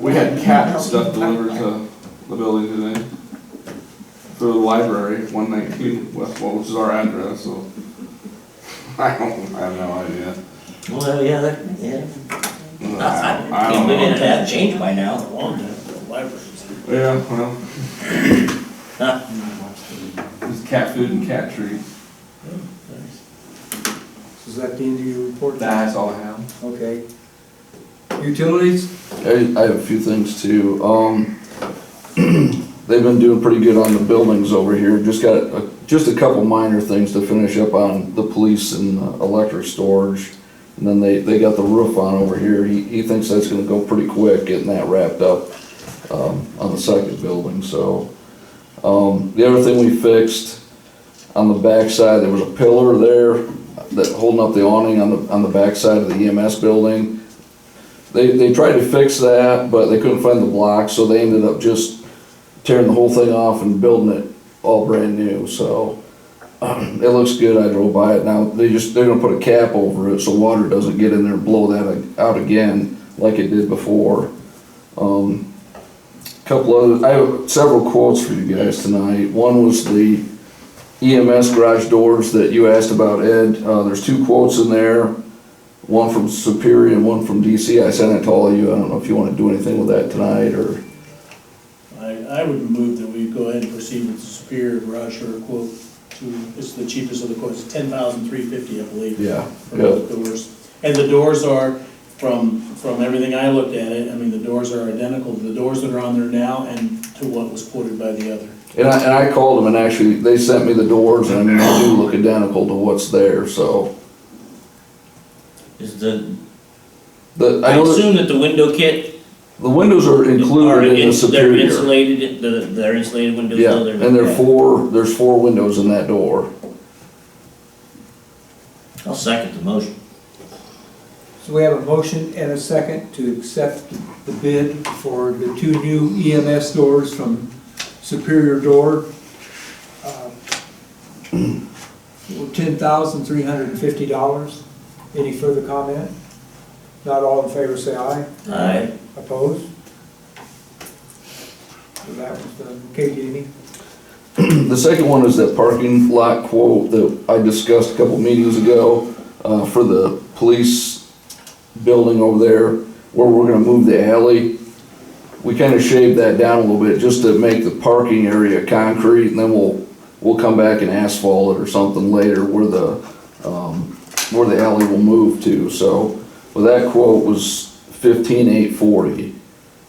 We had cat stuff delivered to the building today through the library, one nineteen West Wall, which is our address, so. I don't, I have no idea. Well, yeah, that, yeah. I don't- I Can't don't believe it know. hasn't changed by now. Yeah, well. It's cat food and cat treats. Is that the end of your report? That's all I have. Okay. Utilities? I, I have a few things too. Um, they've been doing pretty good on the buildings over here. Just got, a- just a couple minor things to finish up on the police and uh, electric storage. And then they, they got the roof on over here. He, he thinks that's gonna go pretty quick getting that wrapped up, um, on the second building, so. Um, the other thing we fixed, on the backside, there was a pillar there that holding up the awning on the, on the backside of the EMS building. They, they tried to fix that, but they couldn't find the block, so they ended up just tearing the whole thing off and building it all brand new, so. um, It looks good, I drove by it now, they just, they're gonna put a cap over it so water doesn't get in there and blow that out again like it did before. Um, couple other, I have several quotes for you guys tonight, one was the EMS garage doors that you asked about, Ed, uh, there's two quotes in there one from Superior and one from DC. I sent it to all of you. I don't know if you want to do anything with that tonight or, I, I would move that we go ahead and proceed with the Superior Garage Door quote to, it's the cheapest of the quotes, ten thousand three fifty, I believe. yeah, For yeah, both doors. And the doors are, from, from everything I looked at it, I mean, the doors are identical to the doors that are on there now and to what was quoted by the other. And I, and I called them and actually, they sent me the doors and I mean, they do look identical to what's there, so. Is the, The, I I know that assume that the window kit the windows are are, included in the ins- they're Superior. insulated, the, they're insulated windows. Yeah, though, they're- and there are four, there's four windows in that door. I'll second the motion. So we have a motion and a second to accept the bid for the two new EMS doors from Superior Door. Uh, Ten thousand three hundred and fifty dollars. Any further comment? Not all in favor, say aye. Aye. Opposed? So that was done. Okay, Jamie? The second one is that parking lot quote that I discussed a couple meetings ago, uh, for the police building over there, where we're gonna move the alley. We kinda shaved that down a little bit, just to make the parking area concrete, and then we'll, we'll come back and asphalt it or something later where the, um, where the alley will move to, so. Well, that quote was fifteen eight forty,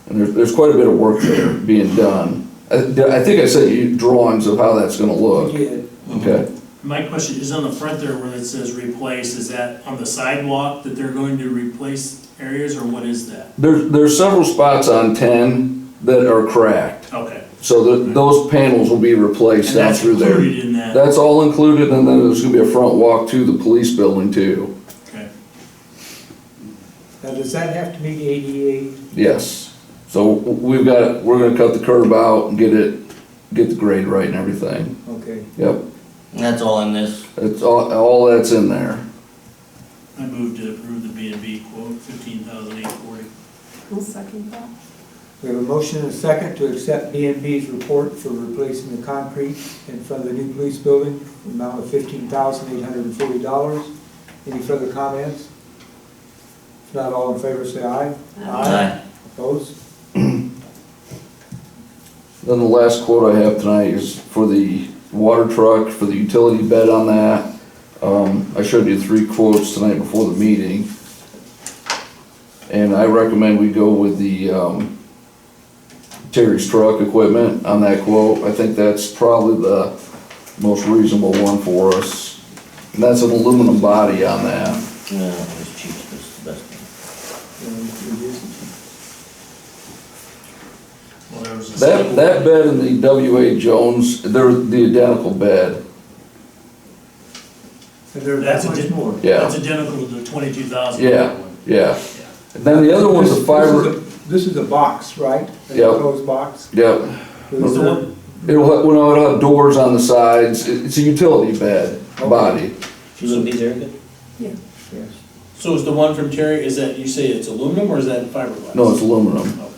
and there's, there's quite a bit of work there being done. I, I think I sent you drawings of how that's gonna look, Yeah. okay? My question is on the front there where it says replace, is that on the sidewalk that they're going to replace areas or what is that? There's, there's several spots on ten that are cracked, Okay. so that those panels will be replaced down through there. in that, That's all included, and then there's gonna be a front walk to the police building too, okay. Now, does that have to meet ADA? yes. So we've got, we're gonna cut the curb out and get it, get the grade right and everything, Okay. yep. And that's all in this. It's all, all that's in there. I move to approve the B and B quote, fifteen thousand eight forty. I'll second that. We have a motion and a second to accept B and B's report for replacing the concrete in front of the new police building, the amount of fifteen thousand eight hundred and forty dollars. Any further comments? If not, all in favor, say aye. Opposed? Then the last quote I have tonight is for the water truck, for the utility bed on that. Um, I showed you three quotes tonight before the meeting. And I recommend we go with the, um, Terry's truck equipment on that quote. I think that's probably the most reasonable one for us. And that's an aluminum body on that. No, it's cheap, it's the best thing. Well, there was a That, second- that bed and the W.A. Jones, they're the identical bed, And there's That's that a much di- more. yeah. That's identical to the twenty-two thousand. Yeah. Yeah. And then the other one's This- a this fiber. is a- This is a box, right? An Yep. enclosed box? Yep. Is there- It'll, ha- well, no, it'll have doors on the sides. It- It's a utility bed body. She's gonna be there good? Yes. So is the one from Terry, is that, you say it's aluminum or is that fiberglass? No, it's aluminum. Okay.